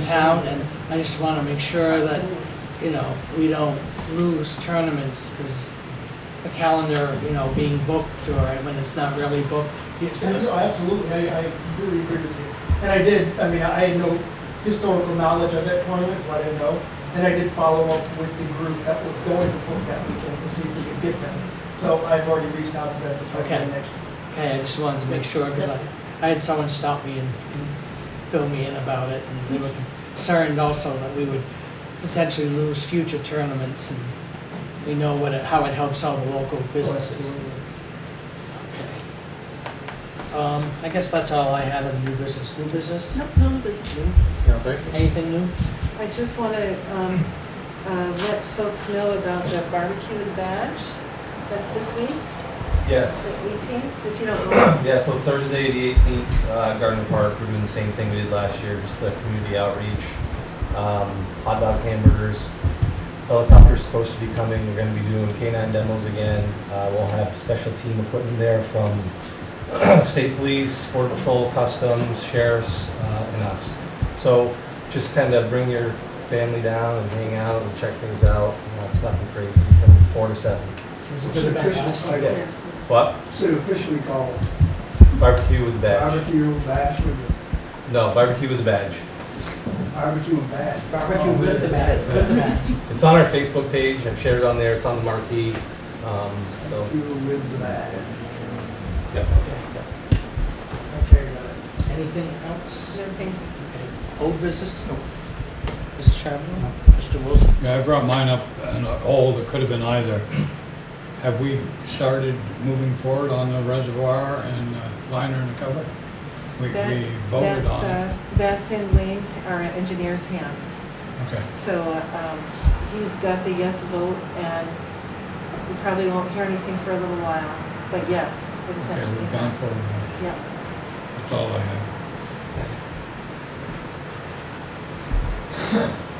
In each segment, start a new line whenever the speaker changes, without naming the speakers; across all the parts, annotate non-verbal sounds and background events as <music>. town, and I just want to make sure that, you know, we don't lose tournaments, because the calendar, you know, being booked, or when it's not really booked. you-
Yeah, no, Absolutely, I, I completely agree with you. And I did, I mean, I had no historical knowledge of that tournament, so I didn't know. And I did follow up with the group that was going to book that weekend to see if we could get them. So I've already reached out to them to try to get
Okay.
them next year.
Okay, I just wanted to make sure, because I, I had someone stop me and and fill me in about it, and they were concerned also that we would potentially lose future tournaments, and we know what, it- how it helps all the local businesses. Okay. Um, I guess that's all I had on new business. New business?
No, no business.
New? Anything new?
I just want to um, uh, let folks know about the barbecue and badge. That's this week, the
Yeah,
18th, if you don't know.
yeah, so Thursday, the eighteenth, uh, Gardner Park, we're doing the same thing we did last year, just the community outreach. Um, hot dogs, hamburgers, helicopter's supposed to be coming, we're gonna be doing canine demos again. Uh, we'll have special team equipment there from <clears throat> state police, border patrol, customs, sheriffs, uh, and us. So just kind of bring your family down and hang out and check things out, Uh, it's nothing crazy, from four to seven.
There's a
It's
bit
an
of
official
backlash.
title,
What?
it's an officially called
Barbecue with badge.
barbecue bash with
No, barbecue with a badge.
a barbecue and bash.
Barbecue with the bat, with the bat.
It's on our Facebook page. I've shared it on there. It's on the marquee. Um, so,
Barbecue with the bash.
yeah.
Okay, got it.
Anything else?
Everything.
Okay. Old business? No. Mr. Chairman? Mr. Wilson?
Yeah, I brought mine up, and all that could have been either. Have we started moving forward on the reservoir and uh, liner and cover? We
That-
we voted
that's,
on it.
uh, That's in Wayne's, our engineer's hands.
Okay,
So um, he's got the yes vote, and we probably won't hear anything for a little while, but yes, it
okay,
essentially
we've gone
has.
forward.
Yeah.
That's all I have.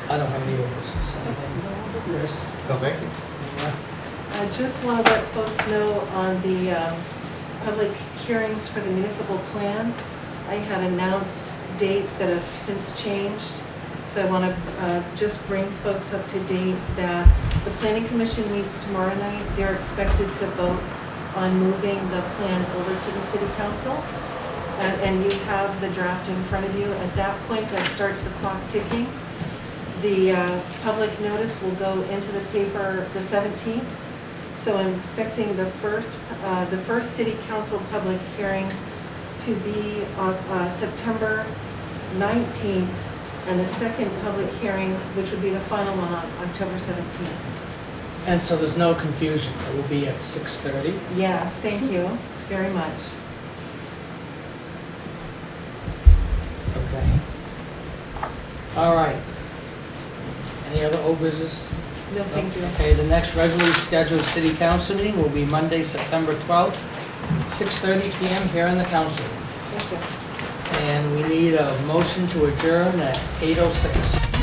I don't have any old business. Anything? Chris?
No, Oh, thank you.
Yeah.
I just want to let folks know on the um, public hearings for the municipal plan, I had announced dates that have since changed. So I want to just bring folks up to date that the planning commission meets tomorrow night. They're expected to vote on moving the plan over to the city council. And- And you have the draft in front of you. At that point, that starts the clock ticking. The uh, public notice will go into the paper the 17th. So I'm expecting the first, uh, the first city council public hearing to be on uh, September 19th, and the second public hearing, which would be the final one, on October 17th.
And so there's no confusion. It will be at 6:30.
Yes, thank you very much.
Okay. All right. Any other old business?
No, thank you.
Okay, the next regularly scheduled city council meeting will be Monday, September 12th, 6:30 PM here in the council. room.
Thank you.
oh And we need a motion to adjourn at 8:06.